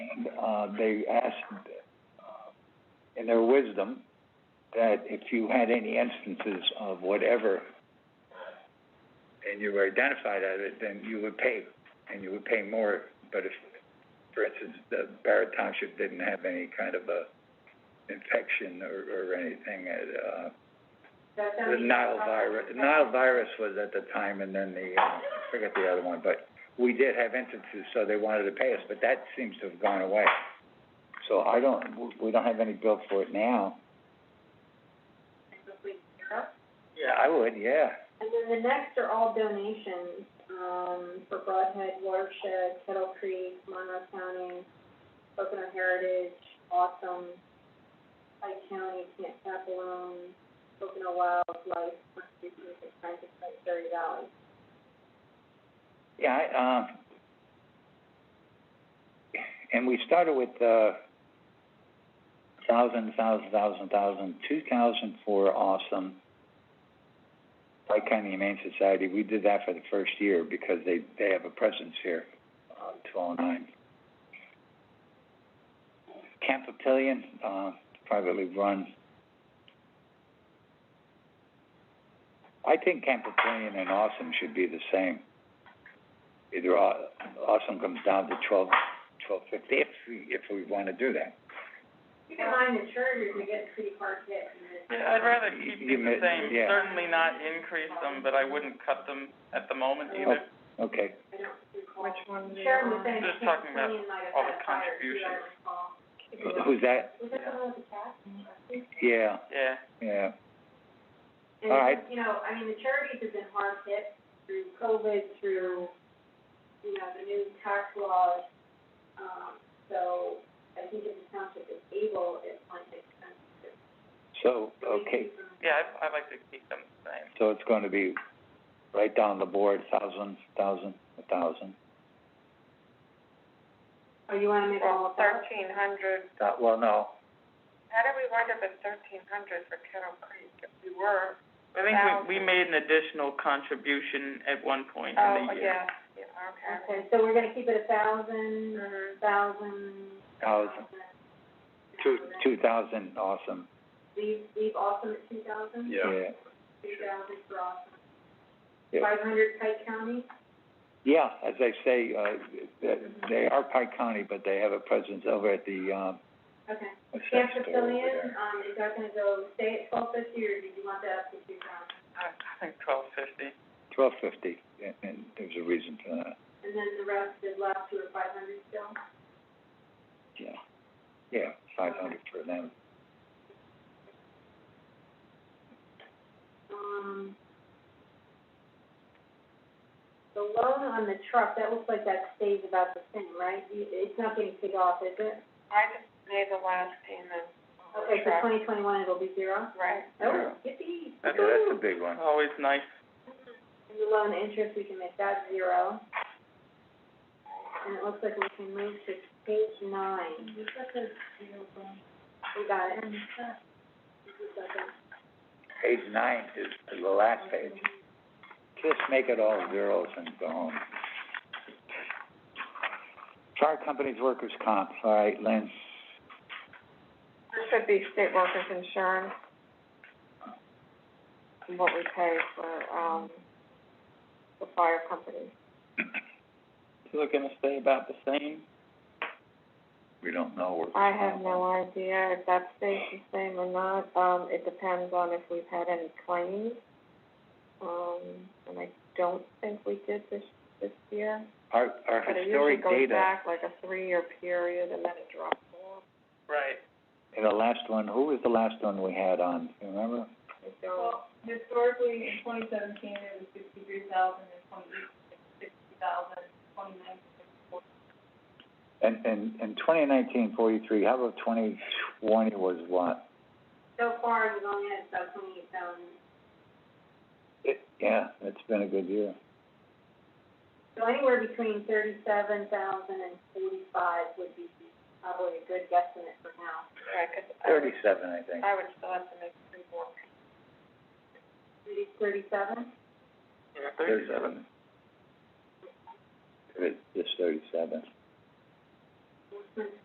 uh, they asked, uh, in their wisdom, that if you had any instances of whatever, and you were identified as it, then you would pay, and you would pay more. But if, for instance, the Barrett Township didn't have any kind of a infection or, or anything, uh, the Nile virus, Nile virus was at the time, and then the, uh, I forget the other one, but we did have instances, so they wanted to pay us, but that seems to have gone away. So I don't, we- we don't have any bill for it now. Yeah, I would, yeah. And then the next are all donations, um, for Broadhead, Watershed, Kettle Creek, Monroe County, Pocono Heritage, Awesome, Pike County, Camp Capelone, Pocono Wildlife, Conservation Friends of Perry Valley. Yeah, I, um, and we started with, uh, thousand, thousand, thousand, thousand, two thousand for Awesome. Pike County Humane Society, we did that for the first year because they, they have a presence here, uh, two oh nine. Camp Papillion, uh, privately run. I think Camp Papillion and Awesome should be the same either aw- awesome comes down to twelve, twelve fifty, if we, if we wanna do that. Keep in mind the chargers, we get pretty hard hit in this. Yeah, I'd rather keep You them mi- the same, yeah. certainly not increase them, but I wouldn't cut them at the moment either. Oh. Okay, I don't recall. Which one do you Sharon was want? saying Just Camp talking about Papillion might have all had the a fire, too, I contributions. recall. Who- who's that? Was that the one with the cat? Yeah, Yeah, yeah, And, All it's right. just, you know, I mean, the charities have been hard hit through COVID, through, you know, the new tax laws. Um, so I think if the township is able, it might make sense to. so, okay, yeah, I, I like to keep them the same. so it's gonna be right down the board, thousand, thousand, a thousand. Or Oh, you wanna make all Well, of that? thirteen hundred, Uh, well, no, how did we wind up at thirteen hundred for Kettle Creek? If we were, I think we, we made an additional contribution at one point in oh, the year. yeah, yeah, okay. Okay, so we're gonna keep it a thousand, Mhm. thousand. thousand, two, two thousand, awesome, Leave, leave awesome at two thousand? yeah. Two thousand for awesome. Yeah. Five hundred Pike County? Yeah, as I say, uh, they, they are Pike County, but they have a presence over at the, um, Okay. what's that Camp store over Papillion, there? um, is that gonna go stay at twelve fifty, or did you want that up to two thousand? I I think twelve fifty. Twelve fifty, and, and there's a reason for that. And then the rest is left to a five hundred still? Yeah, yeah, five hundred for them. Um, the loan on the truck, that looks like that stays about the same, right? You- It's not getting paid off, is it? I just made the last payment. on Oh, the Okay, for truck. twenty twenty-one, it'll be zero? Right. Oh, yippee. That's- Yeah, that's a big one. Always nice. And the loan interest, we can make that zero. And it looks like we can move to page nine. We got it. Just a second. Page nine is is the last page. Just make it all zeros and go home. Fire companies, workers' comp, all right, Lynn, This should be state workers insurance. and What we pay for, um, the fire company. So they're gonna stay about the same? we don't know workers' I have comp. no idea if that stays the same or not, um, it depends on if we've had any claims. Um, and I don't think we did this, this year, Our, our but it usually historic goes data, back like a three-year period and then it drops off. Right. and the last one, who was the last one we had on, you remember? I don't, historically, in twenty seventeen, it was sixty-three thousand, in twenty eighteen, sixty thousand, twenty nineteen. And, and, and twenty nineteen forty-three, how about twenty twenty was what? So far, we've only had about twenty-eight thousand. It, yeah, it's been a good year. So anywhere between thirty-seven thousand and forty-five would be probably a good guesstimate for now. right, 'cause I would, Thirty-seven, I think. I would still have to make three more payments. Maybe thirty-seven? Yeah, thirty-seven. Thirty-seven. It- Just thirty-seven.